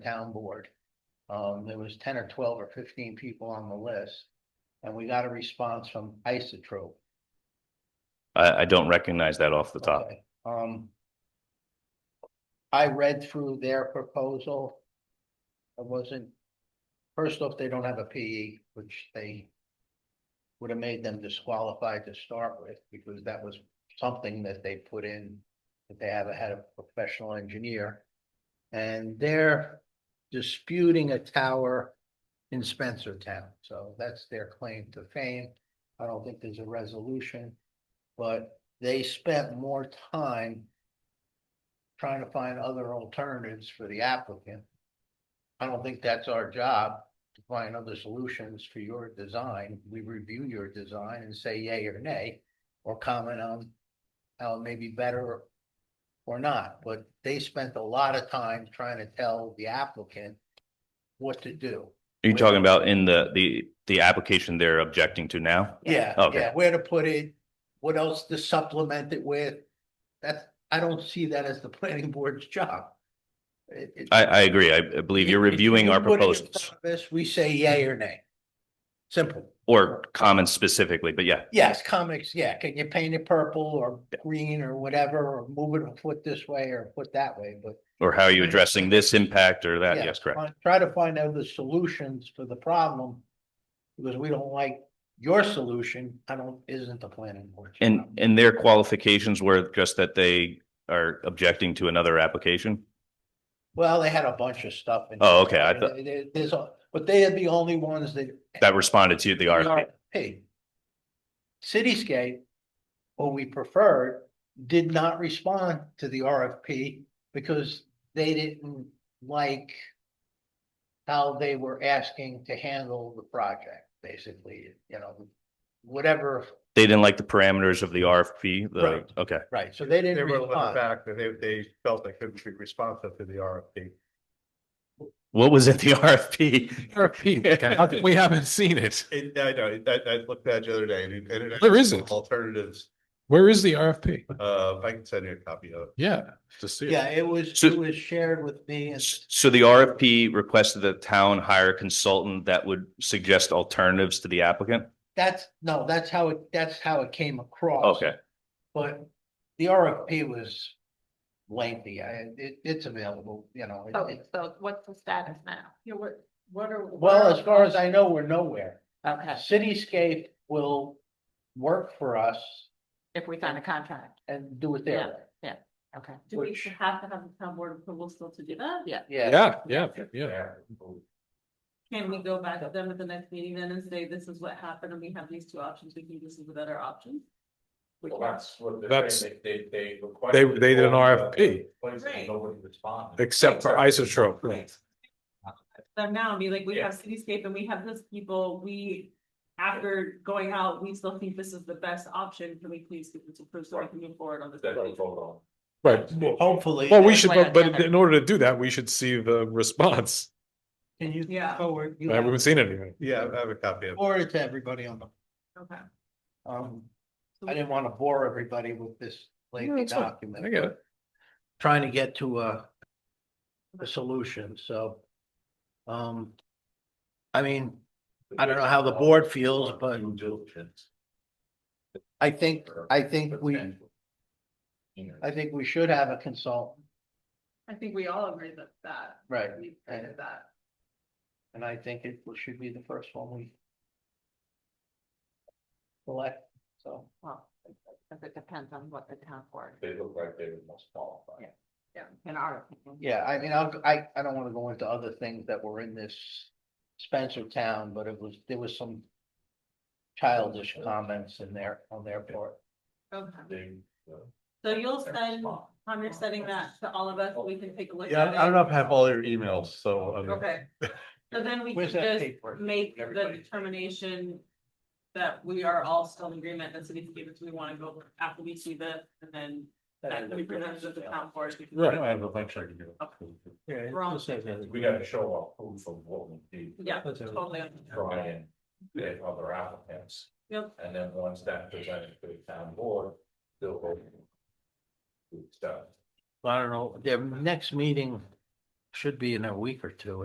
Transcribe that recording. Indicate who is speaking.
Speaker 1: town board. Um, there was ten or twelve or fifteen people on the list. And we got a response from Isotrope.
Speaker 2: I, I don't recognize that off the top.
Speaker 1: Okay, Um. I read through their proposal. I wasn't, first off, they don't have a PE, which they. Would have made them disqualified to start with, because that was something that they put in, that they haven't had a professional engineer. And they're disputing a tower in Spencer Town, so that's their claim to fame. I don't think there's a resolution, but they spent more time trying to find other alternatives for the applicant. I don't think that's our job to find other solutions for your design. We review your design and say yay or nay, or comment on how it may be better or not, but they spent a lot of time trying to tell the applicant what to do.
Speaker 2: Are you talking about in the, the, the application they're objecting to now?
Speaker 1: Yeah,
Speaker 2: Okay.
Speaker 1: yeah, where to put it, what else to supplement it with. That's, I don't see that as the planning board's job. It- it-
Speaker 2: I, I agree. I I believe you're
Speaker 1: You- you-
Speaker 2: reviewing
Speaker 1: you
Speaker 2: our
Speaker 1: put it in
Speaker 2: proposals
Speaker 1: front of us, we say yay or nay. Simple.
Speaker 2: or comments specifically, but yeah.
Speaker 1: Yes, comics, yeah, can you paint it purple or green or whatever, or move it a foot this way or a foot that way, but.
Speaker 2: Or how are you addressing this impact or that?
Speaker 1: yeah,
Speaker 2: Uh, Yes, correct.
Speaker 1: find- Try to find out the solutions for the problem. Because we don't like your solution, I don't, isn't the planning board.
Speaker 2: And, and their qualifications were just that they are objecting to another application?
Speaker 1: Well, they had a bunch of stuff. in there.
Speaker 2: Oh, okay, I thought-
Speaker 1: There- there- There's, a- but they are the only ones that.
Speaker 2: That responded to the RFP.
Speaker 1: Hey. Cityscape, what we preferred, did not respond to the RFP because they didn't like how they were asking to handle the project, basically, you know, whatever,
Speaker 2: They didn't like the parameters of the RFP, the,
Speaker 1: Right.
Speaker 2: okay.
Speaker 1: right, so they
Speaker 3: They
Speaker 1: didn't
Speaker 3: were led
Speaker 1: respond.
Speaker 3: back, that they, they felt they couldn't be responsive to the RFP.
Speaker 2: What was in the RFP?
Speaker 4: RFP. How come We haven't seen it.
Speaker 3: It, I know, it- I, I looked at it the other day and it. and it-
Speaker 4: There isn't.
Speaker 3: Alternatives,
Speaker 4: Where is the RFP?
Speaker 3: uh, I can send you a copy of it.
Speaker 4: Yeah, to see
Speaker 1: Yeah, it was,
Speaker 2: So-
Speaker 1: it was shared with me and
Speaker 2: So the RFP requested the town hire a consultant that would suggest alternatives to the applicant?
Speaker 1: that's, no, that's how it, that's how it came across.
Speaker 2: Okay.
Speaker 1: But the RFP was lengthy. I, it, it's available, you know. it-
Speaker 5: Okay,
Speaker 1: it-
Speaker 5: so what's the status now? Yeah, what, what are?
Speaker 1: Well, as far as I know, we're nowhere.
Speaker 5: Okay,
Speaker 1: Cityscape will work for us
Speaker 5: if we sign a contract,
Speaker 1: and do it their way.
Speaker 5: okay.
Speaker 1: Do we Which-
Speaker 5: have to have the town board approval still to do that? Yeah.
Speaker 1: Yeah,
Speaker 4: Yeah, yeah, yeah.
Speaker 5: Can we go back to them at the next meeting then and say, this is what happened and we have these two options, we think this is the better option? We can,
Speaker 3: what
Speaker 4: they're saying,
Speaker 3: they, they.
Speaker 4: They, they did an RFP,
Speaker 5: and
Speaker 3: Nobody responded.
Speaker 4: except for Isotrope.
Speaker 5: Right. them now and be like, we
Speaker 3: Yeah.
Speaker 5: have cityscape and we have this people, we, after going out, we still think this is the best option, can we please get this approved so we can move forward on this?
Speaker 4: Right.
Speaker 1: hopefully.
Speaker 4: Well, we should,
Speaker 5: Plan
Speaker 4: but, but
Speaker 5: together.
Speaker 4: in order to do that, we should see the response.
Speaker 1: Can you
Speaker 5: Yeah.
Speaker 1: forward, you
Speaker 4: I haven't
Speaker 1: have-
Speaker 4: seen anything.
Speaker 3: Yeah, I have a copy of it.
Speaker 1: forward it to everybody on the,
Speaker 5: Okay.
Speaker 1: um, I didn't want to bore everybody with this
Speaker 4: No,
Speaker 1: lengthy
Speaker 4: it's fine.
Speaker 1: document.
Speaker 4: I get it.
Speaker 1: Trying to get to a, a solution, so. Um, I mean, I don't know how the board feels, but-
Speaker 3: Due diligence.
Speaker 1: I think, I think we, I think we should have a consultant,
Speaker 5: I think we all agree that that,
Speaker 1: right?
Speaker 5: we
Speaker 1: decided
Speaker 5: that.
Speaker 1: And I think it should be the first one we. Select, so.
Speaker 5: Well, because it depends on what the town board,
Speaker 3: They look like they were most qualified.
Speaker 5: yeah, in our opinion.
Speaker 1: Yeah, I mean, I'll, I, I don't wanna go into other things that were in this Spencer town, but it was, there was some. Childish comments in there, on their part.
Speaker 5: Okay,
Speaker 3: They, uh,
Speaker 5: so you'll
Speaker 3: they're
Speaker 5: send,
Speaker 3: small.
Speaker 5: Tom, you're sending that to all of us, we can take a look
Speaker 3: Yeah,
Speaker 5: at it.
Speaker 3: I don't know if I have all your emails, so. I mean-
Speaker 5: Okay, so then we
Speaker 1: Where's
Speaker 5: could
Speaker 1: that
Speaker 5: just
Speaker 1: paper?
Speaker 5: make the
Speaker 1: Everybody.
Speaker 5: determination that we are all still in agreement, that city gave us, we wanna go after we see this, and then that can be presented to the town board. we can-
Speaker 3: Right, I have a bunch I can do.
Speaker 1: Yeah, it
Speaker 5: Wrong.
Speaker 1: just says that.
Speaker 3: We gotta show our proof of what we did.
Speaker 5: Yeah,
Speaker 1: That's it.
Speaker 5: totally.
Speaker 3: Brian, and other applicants,
Speaker 5: Yep,
Speaker 3: and then once that presented to the town board, they'll go. Good stuff.
Speaker 1: I don't know, their next meeting should be in a week or two,